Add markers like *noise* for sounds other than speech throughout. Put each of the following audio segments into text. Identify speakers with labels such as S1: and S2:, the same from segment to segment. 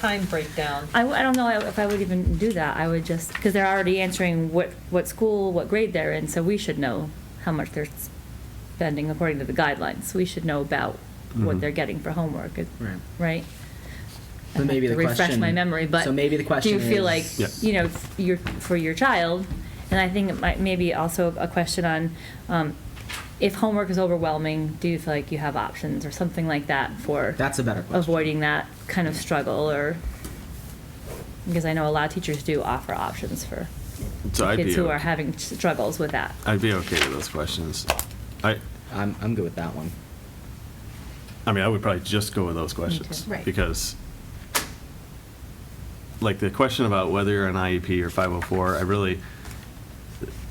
S1: time breakdown.
S2: I, w- I don't know if I would even do that. I would just, because they're already answering what, what school, what grade they're in, so we should know how much they're spending according to the guidelines. We should know about what
S3: Mhm.
S2: they're getting for homework, it-
S4: Mm-hmm.
S2: right?
S4: Right.
S2: I
S4: But maybe
S2: have to
S4: the
S2: Refresh my
S4: question-
S2: memory, but.
S4: so maybe the question
S2: Do you feel like,
S4: is-
S3: Yeah.
S2: you know, f- your, for your child, and I think it might, maybe also a question on, um, if homework is overwhelming, do you feel like you have options or something like that for?
S4: That's a better question.
S2: avoiding that kind of struggle or, because I know a lot of teachers do offer options for
S3: So I'd
S2: kids
S3: be,
S2: who are
S3: o-
S2: having struggles with that.
S3: I'd be okay with those questions. I,
S4: I'm, I'm good with that one.
S3: I mean, I would probably just go with those questions.
S2: too. Right.
S3: Because, like, the question about whether you're an IEP or 504, I really,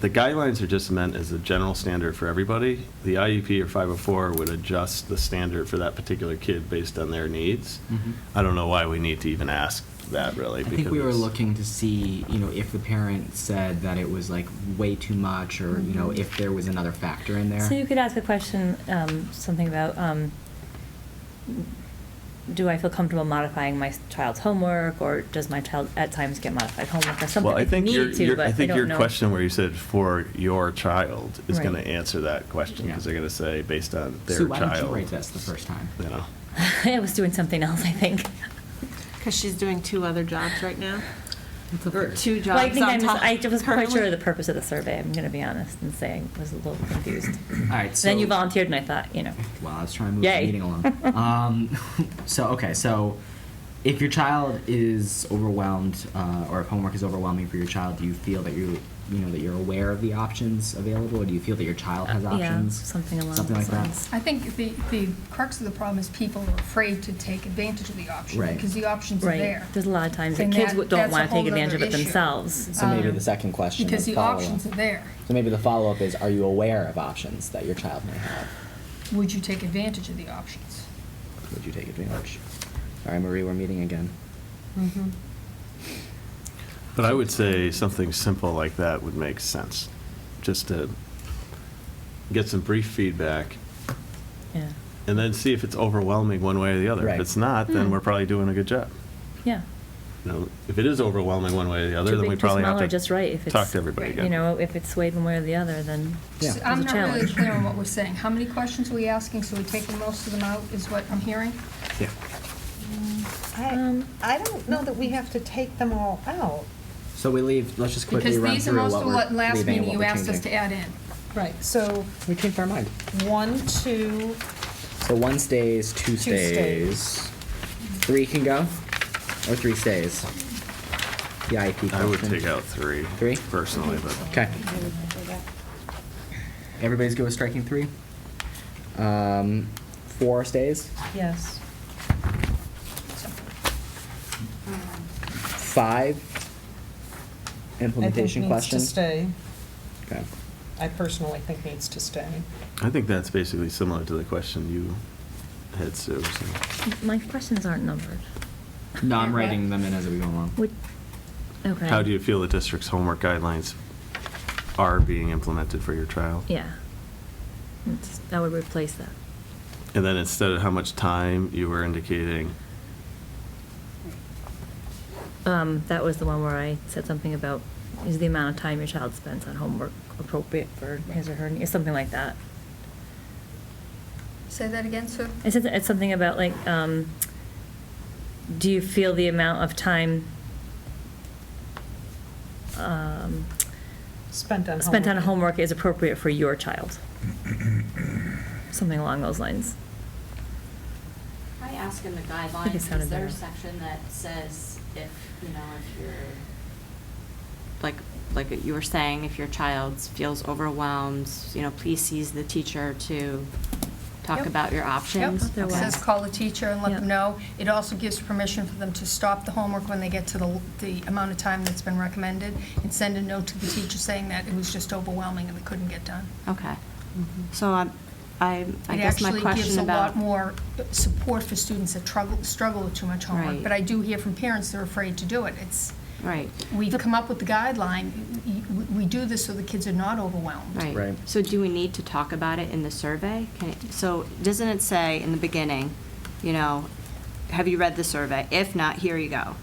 S3: the guidelines are just meant as a general standard for everybody. The IEP or 504 would adjust the standard for that particular kid based on their needs.
S4: Mhm.
S3: I don't know why we need to even ask that, really.
S4: I think we were
S3: because-
S4: looking to see, you know, if the parent said that it was like way too much, or you know,
S2: Mhm.
S4: if there was another factor in there.
S2: So you could ask a question, um, something about, um, do I feel comfortable modifying my child's homework, or does my child at times get modified homework or something?
S3: Well, I
S2: if
S3: think
S2: need
S3: your,
S2: to,
S3: your-
S2: but
S3: I think
S2: don't
S3: your
S2: know.
S3: question where you said for your child is
S2: Right.
S3: going to answer that question because
S4: Yeah.
S3: they're going to say based on their
S4: Sue,
S3: child.
S4: why didn't you write this the first time?
S3: You know,
S2: *laughs* I was doing something else, I think.
S1: Because she's doing two other jobs right now.
S4: It's
S1: Or
S4: okay.
S1: two
S2: Well, I
S1: jobs
S2: think I
S1: on
S2: mis-
S1: top.
S2: I was quite sure
S1: currently.
S2: of the purpose of the survey, I'm gonna be honest and say I was a little confused.
S4: All right. So
S2: Then you volunteered and I thought, you know.
S4: Well, I was trying to move
S2: Yay.
S4: the meeting
S2: *laughs*
S4: along. um, *laughs* so okay, so if your child is overwhelmed, uh, or if homework is overwhelming for your child, do you feel that you, you know, that you're aware of the options available, or do you feel that your child has
S2: Uh, yeah,
S4: options?
S2: something along
S4: something
S2: those
S4: like
S2: lines.
S4: that.
S5: I think the, the crux of the problem is people are afraid to take advantage of the option.
S4: Right.
S5: Because the option's are
S2: Right.
S5: there.
S2: There's a lot of times that
S5: And
S2: kids
S5: that-
S2: w- don't
S5: that's a
S2: wanna take
S5: whole
S2: advantage of
S5: nother
S2: it
S5: issue.
S2: themselves.
S4: So maybe
S5: Um,
S4: the second question.
S5: Because
S4: is
S5: the
S4: follow-up.
S5: options are there.
S4: So maybe the follow-up is, are you aware of options that your child may have?
S5: Would you take advantage of the options?
S4: Would you take advantage? All right, Marie, we're meeting again.
S1: Mhm.
S3: but I would say something simple like that would make sense, just to get some brief feedback
S2: Yeah,
S3: and then see if it's overwhelming one way or the other. If
S4: Right.
S3: it's not, then
S2: Hmm.
S3: we're probably doing a good job.
S2: yeah.
S3: You know, if it is overwhelming one way or the other,
S2: Too
S3: then
S2: big,
S3: we
S2: too
S3: probably
S2: small,
S3: have
S2: or just right, if
S3: to talk
S2: it's-
S3: to everybody
S5: Right.
S3: again.
S2: You know, if it's swayed one way or the other, then
S4: Yeah.
S2: it's
S5: So
S2: a
S5: I'm not really
S2: challenge.
S5: clear on what we're saying. How many questions are we asking? So we're taking most of them out, is what I'm hearing?
S4: Yeah.
S1: I,
S2: Um,
S1: I don't know that we have to take them all out.
S4: So we leave, let's just quickly
S5: Because
S4: run
S5: these are
S4: through
S5: most
S4: what
S5: of
S4: we're
S5: what last
S4: leaving and
S5: meeting
S4: what
S5: you
S4: we're
S5: asked us to
S4: changing.
S5: add in.
S1: Right, so
S4: We changed our mind.
S1: one, two,
S4: So one stays, two
S1: stays.
S4: stays. Three can go, or three stays? The IEP
S3: I would
S4: question.
S3: take out three.
S4: Three?
S3: Personally, but.
S4: Okay. Everybody's good with striking three? Um, four stays,
S1: yes.
S2: Um,
S4: five implementation question.
S1: I think needs
S4: Okay.
S1: to stay. I personally think needs to stay.
S3: I think that's basically similar to the question you had, Sue. so.
S2: *laughs* My questions aren't numbered.
S4: No, I'm writing them in as we go along.
S2: Would, okay.
S3: How do you feel the district's homework guidelines are being implemented for your child?
S2: Yeah. It's- That would replace that.
S3: And then instead of how much time, you were indicating,
S2: Um, that was the one where I said something about, is the amount of time your child spends on homework appropriate for his or her, needs, something like that.
S5: Say that again, Sue?
S2: It's, it's something about like, um, do you feel the amount of time, um,
S1: Spent on homework.
S2: spent on homework is appropriate for your child? *clears throat* Something along those lines.
S6: I
S2: *laughs*
S6: ask in the
S2: I think
S6: guidelines,
S2: it sounded
S6: is there a
S2: better.
S6: section that says if, you know, if you're, like, like you were saying, if your child feels overwhelmed, you know, please seize the teacher to talk
S5: Yep.
S6: about your options?
S2: Thought there
S5: It
S6: Okay.
S5: says call the teacher and let
S2: Yeah.
S5: them know. It also gives permission for them to stop the homework when they get to the, the amount of time that's been recommended and send a note to the teacher saying that it was just overwhelming and they couldn't get done.
S6: Okay.
S1: Mm-hmm.
S6: So um, I, I guess my
S5: It actually gives
S6: question
S5: a
S6: about.
S5: lot more support for students that struggle, struggle with too much homework.
S6: Right.
S5: But I do hear from parents they're afraid to do it. It's,
S6: Right,
S5: we've come up with the guideline, y- y- we do this so the kids are not overwhelmed.
S6: right.
S4: Right.
S6: So do we need to talk about it in the survey? Can it- So doesn't it say in the beginning, you know, have you read the survey? If not, here you go.